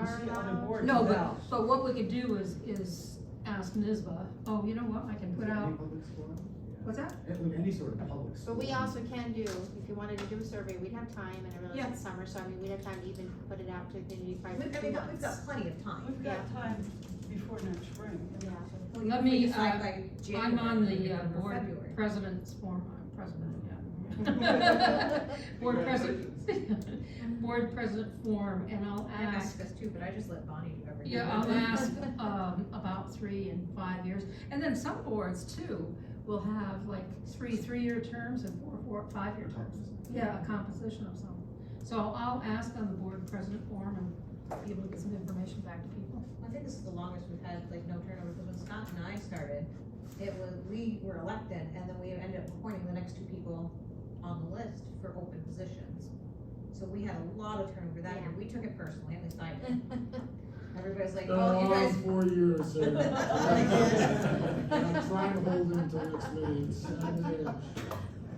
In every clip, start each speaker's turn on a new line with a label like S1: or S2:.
S1: our
S2: see other
S1: knowledge.
S2: boards
S3: No,
S2: now.
S3: but, but what we could do is, is ask NISBA, oh, you know what, I can put out, what's that?
S2: It would be Any sort of public.
S1: But we
S2: school.
S1: also can do, if you wanted to do a survey, we'd have time, and I realize it's summer, so I mean, we'd have time to even put it out to the community prior
S4: We've,
S1: to
S4: I
S1: two
S4: mean, we've
S1: months.
S4: got plenty of time.
S5: We've got time before next spring.
S1: Yeah.
S3: Let
S4: If we
S3: me,
S4: decide
S3: uh,
S4: by
S3: I'm
S4: January,
S3: on the
S4: maybe
S3: uh,
S4: or
S3: board
S4: February.
S3: president's form, uh, president, yeah. Board president, board president form, and I'll
S4: I have
S3: ask,
S4: access too, but I just let Bonnie do everything.
S3: uh, yeah, I'll ask, um, about three and five years. And then some boards too will have like three, three-year terms and four, four, five-year terms. Yeah, a composition of some. So I'll ask on the board president form and be able to get some information back to people.
S4: I think this is the longest we've had, like, no turnover, because when Scott and I started, it was, we were elected, and then we ended up appointing the next two people on the list for open positions. So we had a lot of turnover that year, we took it personally, at least I did. Everybody's like, oh, you guys, Oh
S6: Four years, sir. I'm trying to hold it until next meeting, it's seven years.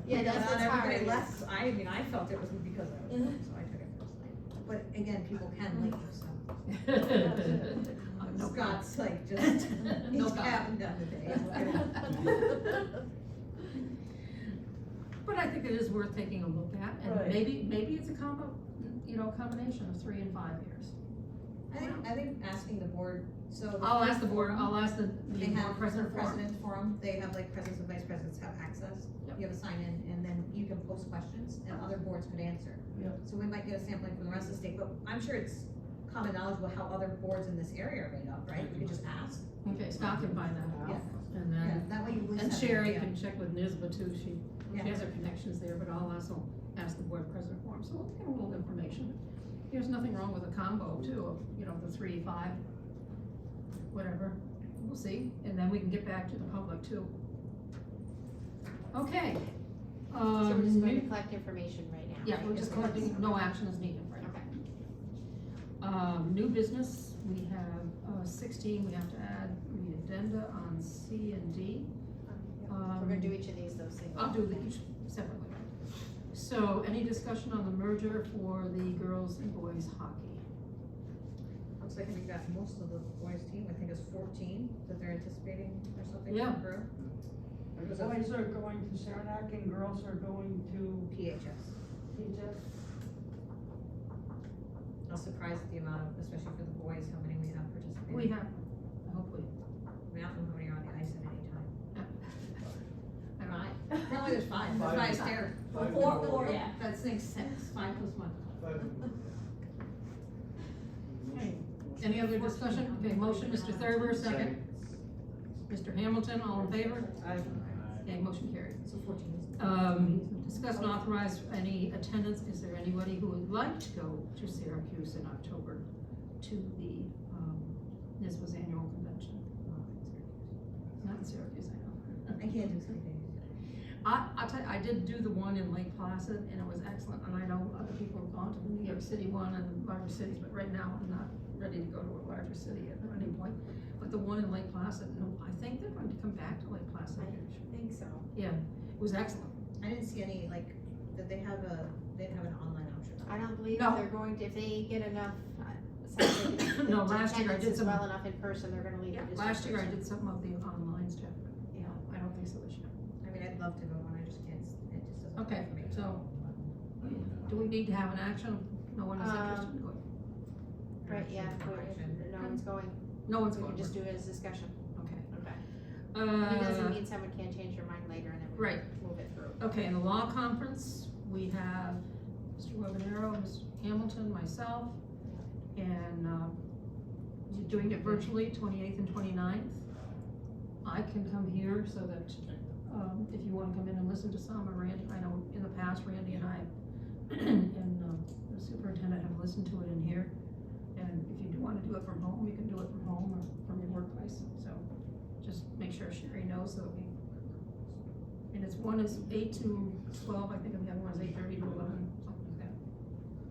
S1: Yeah,
S4: not
S1: that's, that's
S4: everybody
S1: hard.
S4: left, I mean, I felt it was because I was,
S3: Mm-hmm.
S4: so I took it personally. Oh, But again, people can leave, so
S3: No
S4: Scott's like, just,
S3: No
S4: he's
S3: comment.
S4: having done today, look at him.
S3: But I think it is worth taking a look at, and
S5: Right.
S3: maybe, maybe it's a combo, you know, combination of three and five years.
S4: I think, I think asking the board, so. the-
S3: I'll ask the board, I'll ask the,
S4: They
S3: the
S4: have
S3: board president for it.
S4: president's forum, they have like presidents and vice presidents have access.
S3: Yep.
S4: You have a sign in and then you can post questions and other boards could answer.
S5: Yep.
S4: So we might get a sampling from the rest of the state, but I'm sure it's common knowledge about how other boards in this area are made up, right? You could just ask.
S3: Okay, Scott can find that out,
S4: Yeah.
S3: and
S4: Yeah,
S3: then,
S4: That way you at least
S3: and
S4: have an
S3: Sherry
S4: idea.
S3: can check with NISBA too, she, she
S4: Yeah.
S3: has her connections there, but I'll also ask the board president for him, so we'll get a little information. There's nothing wrong with a combo too, of, you know, the three, five, whatever, we'll see, and then we can get back to the public too. Okay, um.
S1: So we're just going to collect information right now.
S3: Yeah, we're just collecting, no action is needed right now.
S1: Okay.
S3: Um, new business, we have uh, sixteen, we have to add the addenda on C and D.
S1: We're gonna do each of these though, single.
S3: I'll do the each separately. So any discussion on the merger for the girls and boys hockey?
S4: Looks like we've got most of the boys' team, I think it's fourteen that they're anticipating or something.
S3: Yeah.
S4: for Group,
S5: Boys are going to Saranac and girls are going to
S4: PHS.
S5: Egypt.
S4: I was surprised at the amount of, especially for the boys, how many we have participating.
S3: We have, hopefully.
S4: We don't know how many are on the ice at any time.
S3: I don't know.
S4: Apparently there's five,
S2: Five.
S4: that's why I stared.
S2: Five.
S4: Four, four, yeah, that makes sense, five plus one.
S3: Any other discussion? Okay, motion, Mr. Thurber, second. Mr. Hamilton, all in favor?
S5: I,
S3: Okay, motion carried.
S4: So fourteen is.
S3: Um, discuss and authorize any attendance, is there anybody who would like to go to Syracuse in October to the, um, NISBA's annual convention? Not in Syracuse, I know.
S4: I can't do something.
S3: I, I tell you, I did do the one in Lake Placid and it was excellent, and I know other people have gone to the New York City one and larger cities, but right now I'm not ready to go to a larger city at any point. But the one in Lake Placid, no, I think they're going to come back to Lake Placid, it
S1: I think so.
S3: was excellent.
S4: I didn't see any, like, that they have a, they didn't have an online option.
S1: I don't believe
S3: No.
S1: they're going to, if they get enough. uh, sounds like if
S3: No,
S1: the
S3: last year I
S1: attendance
S3: did
S1: is
S3: some-
S1: Well enough in person, they're gonna leave. it just
S3: Last
S1: in
S3: year I
S1: person.
S3: did something of the online stuff, but yeah, I don't think so this year.
S4: I mean, I'd love to go on, I just can't, s- it just doesn't. work
S3: Okay,
S4: for me.
S3: so do we need to have an action? No one
S1: Um,
S3: is interested in going.
S1: Right, yeah,
S4: Action,
S1: but
S4: action.
S1: if no one's going,
S3: No one's
S1: we
S3: going.
S1: can just do it as discussion.
S3: Okay.
S1: Okay. It doesn't
S3: Uh,
S1: mean someone can't change their mind later and then we
S3: Right.
S1: move it through.
S3: okay, in the law conference, we have Mr. Webanero, Mr. Hamilton, myself, and, um, you're doing it virtually, twenty-eighth and 29th. I can come here so that, um, if you wanna come in and listen to some, or Randy, I know in the past, Randy and I and, um, the superintendent have listened to it in here, and if you do wanna do it from home, you can do it from home or from your workplace, so just make sure Sherry knows so that we. And it's one is eight to twelve, I think, and the other one is eight thirty to eleven, something like that.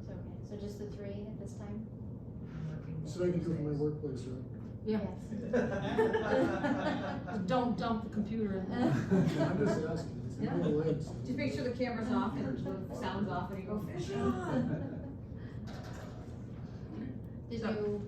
S1: So, okay, so just the three at this time?
S4: I'm working
S6: So I can do it from my
S4: Tuesdays.
S6: workplace, right?
S3: Yeah.
S1: Yes.
S3: Just Uh, Don't dump the computer in there.
S6: I'm just asking, it's
S3: Yeah.
S6: my legs.
S4: Just make sure the camera's off and the sound's off and you go fishing.
S1: Did you